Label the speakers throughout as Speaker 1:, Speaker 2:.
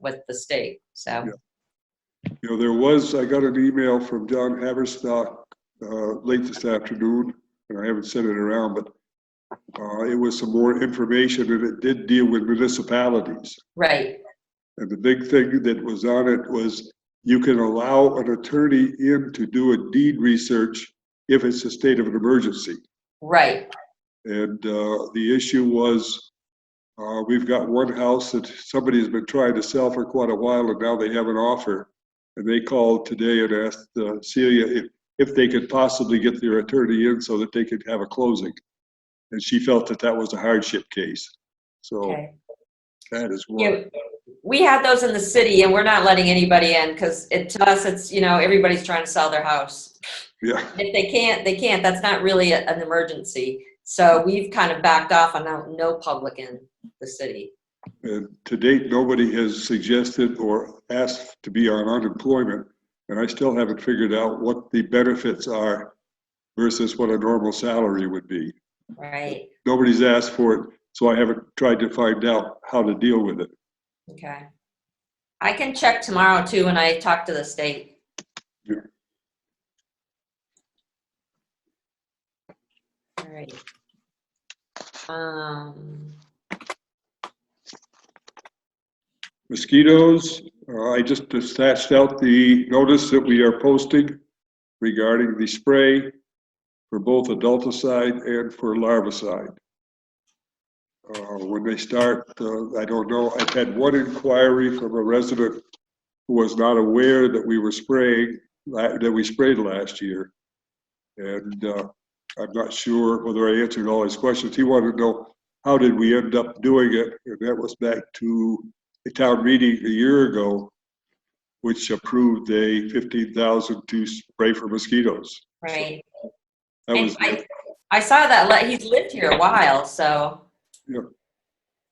Speaker 1: with the state, so.
Speaker 2: Yeah. You know, there was, I got an email from John Haverstock uh, late this afternoon, and I haven't sent it around, but uh, it was some more information, and it did deal with municipalities.
Speaker 1: Right,
Speaker 2: And the big thing that was on it was you can allow an attorney in to do a deed research if it's a state of an emergency.
Speaker 1: right,
Speaker 2: And uh, the issue was, uh, we've got one house that somebody's been trying to sell for quite a while and now they have an offer. And they called today and asked uh, Celia if, if they could possibly get their attorney in so that they could have a closing. And she felt that that was a hardship case. So
Speaker 1: okay.
Speaker 2: that is
Speaker 1: Yeah,
Speaker 2: one.
Speaker 1: We had those in the city and we're not letting anybody in because it, to us, it's, you know, everybody's trying to sell their house.
Speaker 2: Yeah,
Speaker 1: If they can't, they can't. That's not really a- an emergency. So we've kind of backed off on no- no public in the city.
Speaker 2: and to date, nobody has suggested or asked to be on unemployment. And I still haven't figured out what the benefits are versus what a normal salary would be.
Speaker 1: Right,
Speaker 2: nobody's asked for it, so I haven't tried to find out how to deal with it.
Speaker 1: okay. I can check tomorrow too when I talk to the state.
Speaker 2: Yeah.
Speaker 1: All right. Um,
Speaker 2: Mosquitoes, uh, I just dispatched out the notice that we are posting regarding the spray for both adulticide and for larvicide. Uh, When they start, uh, I don't know, I've had one inquiry from a resident who was not aware that we were spraying, la- that we sprayed last year. And uh, I'm not sure whether I answered all his questions. He wanted to know, how did we end up doing it? And that was back to a town meeting a year ago, which approved a fifteen thousand to spray for mosquitoes.
Speaker 1: right.
Speaker 2: That
Speaker 1: And
Speaker 2: was,
Speaker 1: I, I saw that, li- he's lived here a while, so.
Speaker 2: Yeah.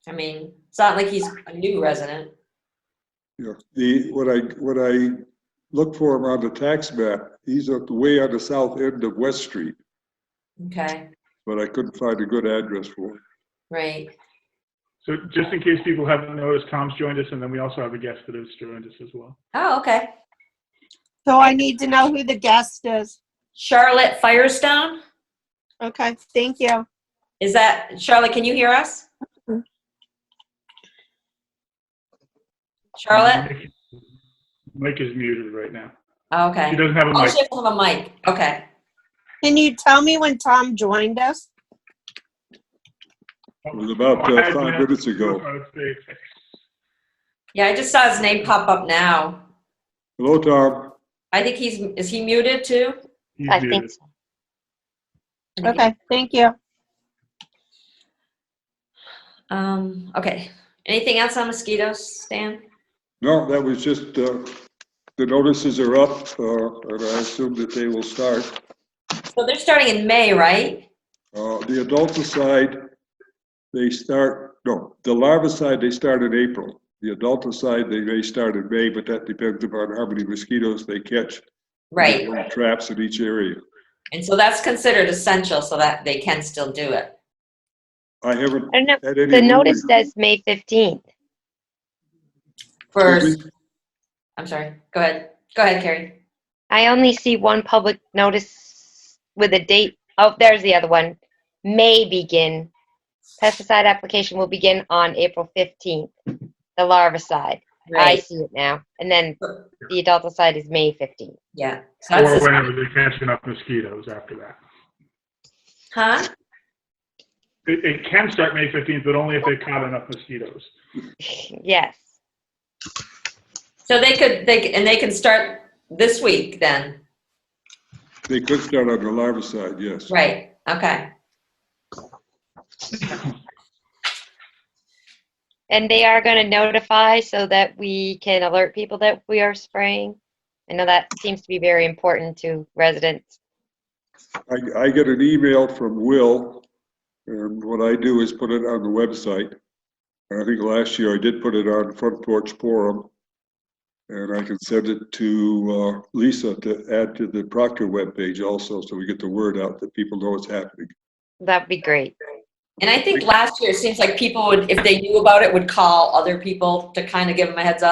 Speaker 1: I mean, it's not like he's a new resident.
Speaker 2: you know, the, when I, when I look for him on the tax map, he's at the way on the south end of West Street,
Speaker 1: Okay,
Speaker 2: but I couldn't find a good address for him.
Speaker 1: right.
Speaker 3: So just in case people haven't noticed, Tom's joined us, and then we also have a guest that has joined us as well.
Speaker 1: Oh, okay.
Speaker 4: So I need to know who the guest is.
Speaker 1: Charlotte Firestone?
Speaker 4: Okay, thank you.
Speaker 1: Is that, Charlotte, can you hear us? Charlotte?
Speaker 3: Mike- Mike is muted right now.
Speaker 1: Oh,
Speaker 3: She
Speaker 1: Okay.
Speaker 3: doesn't have a
Speaker 1: Oh,
Speaker 3: mic.
Speaker 1: she doesn't have a mic. Okay.
Speaker 4: Can you tell me when Tom joined us?
Speaker 2: It was about uh, five minutes ago.
Speaker 1: Yeah, I just saw his name pop up now.
Speaker 2: Hello, Tom.
Speaker 1: I think he's, is he muted too?
Speaker 3: He's
Speaker 4: I
Speaker 3: muted.
Speaker 4: think so. Okay, thank you.
Speaker 1: Um, okay. Anything else on mosquitoes, Stan?
Speaker 2: No, that was just, uh, the notices are up, uh, and I assume that they will start.
Speaker 1: So they're starting in May, right?
Speaker 2: Uh, The adulticide, they start, no, the larvicide, they start in April. The adulticide, they may start in May, but that depends upon how many mosquitoes they catch.
Speaker 1: Right.
Speaker 2: And Traps in each area.
Speaker 1: And so that's considered essential so that they can still do it.
Speaker 2: I haven't
Speaker 5: I don't know,
Speaker 2: had any.
Speaker 5: the notice
Speaker 2: rumors.
Speaker 5: says May 15th.
Speaker 1: For, I'm sorry. Go ahead. Go ahead, Carrie.
Speaker 5: I only see one public notice with a date. Oh, there's the other one. May begin. Pesticide application will begin on April 15th. The larvicide. I see it now. And then the adulticide is May 15th.
Speaker 1: Yeah. So
Speaker 3: Or
Speaker 1: that's the-
Speaker 3: whenever they catch enough mosquitoes after that.
Speaker 1: Huh?
Speaker 3: It, it can start May 15th, but only if they caught enough mosquitoes.
Speaker 5: Yes.
Speaker 1: So they could, they, c- and they can start this week then,
Speaker 2: They could start on the larvicide, yes.
Speaker 1: right, okay,
Speaker 5: And they are going to notify so that we can alert people that we are spraying. I know that seems to be very important to residents.
Speaker 2: I, I get an email from Will, and what I do is put it on the website. And I think last year I did put it on Front Porch Forum. And I can send it to uh, Lisa to add to the Proctor webpage also, so we get the word out that people know it's happening.
Speaker 5: That'd be great.
Speaker 1: And I think last year, it seems like people would, if they knew about it, would call other people to kind of give them a heads up.